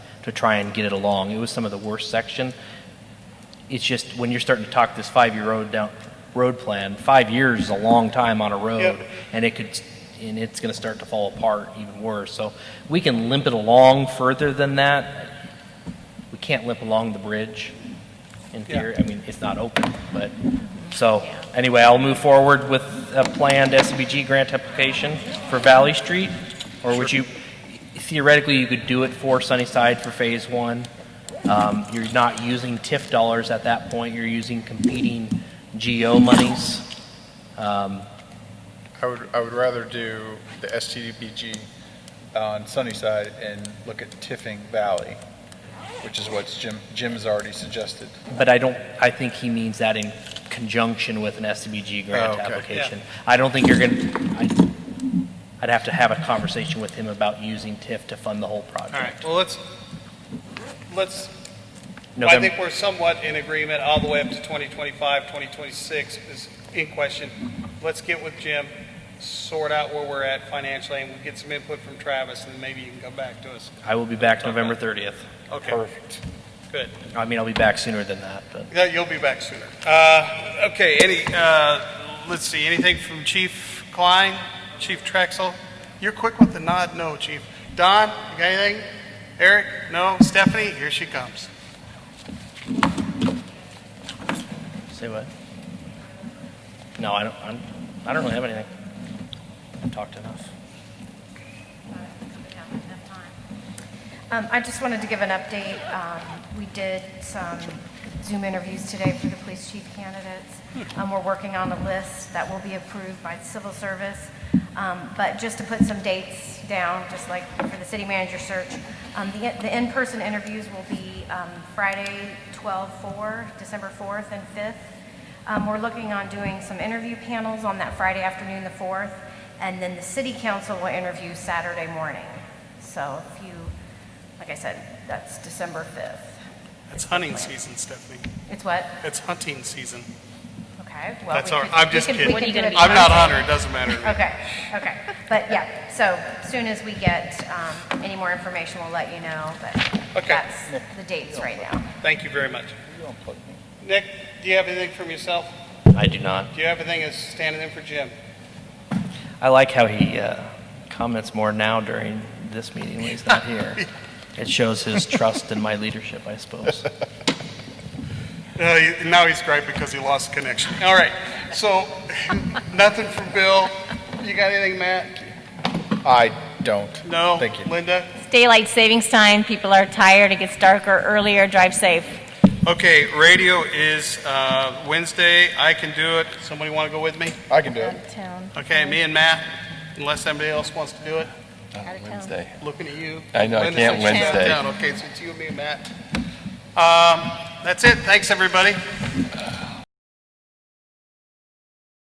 to try and get it along. It was some of the worst section. It's just when you're starting to talk this five-year road down, road plan, five years is a long time on a road. And it could, and it's gonna start to fall apart even worse. So we can limp it along further than that. We can't limp along the bridge in Yeah. theory. I mean, it's not open, but, so, anyway, I'll move forward with a planned SBG grant application for Valley Street. Or would you, theoretically, you could do it for Sunnyside for phase one. Um, you're not using TIF dollars at that point, you're using competing GO monies. Um, I would, I would rather do the STDBG on Sunnyside and look at Tiffing Valley, which is what Jim, Jim has already suggested. But I don't, I think he means that in conjunction with an SDBG grant Oh, okay. application. I don't think you're going, to I'd have to have a conversation with him about using TIF to fund the whole All project. right, well, let's, let's, I November, think we're somewhat in agreement all the way up to 2025, 2026 is in question. Let's get with Jim, sort out where we're at financially, and we'll get some input from Travis, and maybe you can come back to us. I will be back November 30th. Okay, Perfect. good. I mean, I'll be back sooner than that, but Yeah, you'll be back sooner. Uh, Okay, any, uh, let's see, anything from Chief Klein, Chief Trexel? You're quick with the nod, no, Chief. Don, you got anything? Eric, no? Stephanie, here she comes. say what? No, I don't, I'm, I don't really have anything. I've talked enough. Um, I just wanted to give an update. Um, We did some Zoom interviews today for the police chief candidates. Um, We're working on a list that will be approved by civil service. Um, But just to put some dates down, just like for the city manager search, um, the the in-person interviews will be um, Friday, 12/4, December 4th and 5th. Um, We're looking on doing some interview panels on that Friday afternoon, the 4th, and then the city council will interview Saturday morning. So if you, like I said, that's December 5th. It's hunting season, Stephanie. It's what? It's hunting season. Okay. well, That's we all, could- I'm we just could- we kidding. could do it I'm not Monday. on her, it doesn't matter. to me. Okay, okay. But yeah, so soon as we get um, any more information, we'll let you know, but Okay. that's the dates right now. Thank you very much. Nick, do you have anything from yourself? I do not. Do you have anything as standing in for Jim? I like how he uh, comments more now during this meeting when he's not here. It shows his trust in my leadership, I suppose. Uh, he- now he's great because he lost connection. All right, so nothing from Bill. You got anything, Matt? I don't. No? Thank you. Linda? Daylight savings time, people are tired, it gets darker earlier, drive safe. Okay, radio is uh, Wednesday. I can do it. Somebody want to go with me? I can do it. Out-of-town. Okay, me and Matt, unless somebody else wants to do it. Wednesday. Looking at you. I know, I Linda can't said she's out of Wednesday. town. Okay, so it's you and me and Matt. Um, That's it. Thanks, everybody.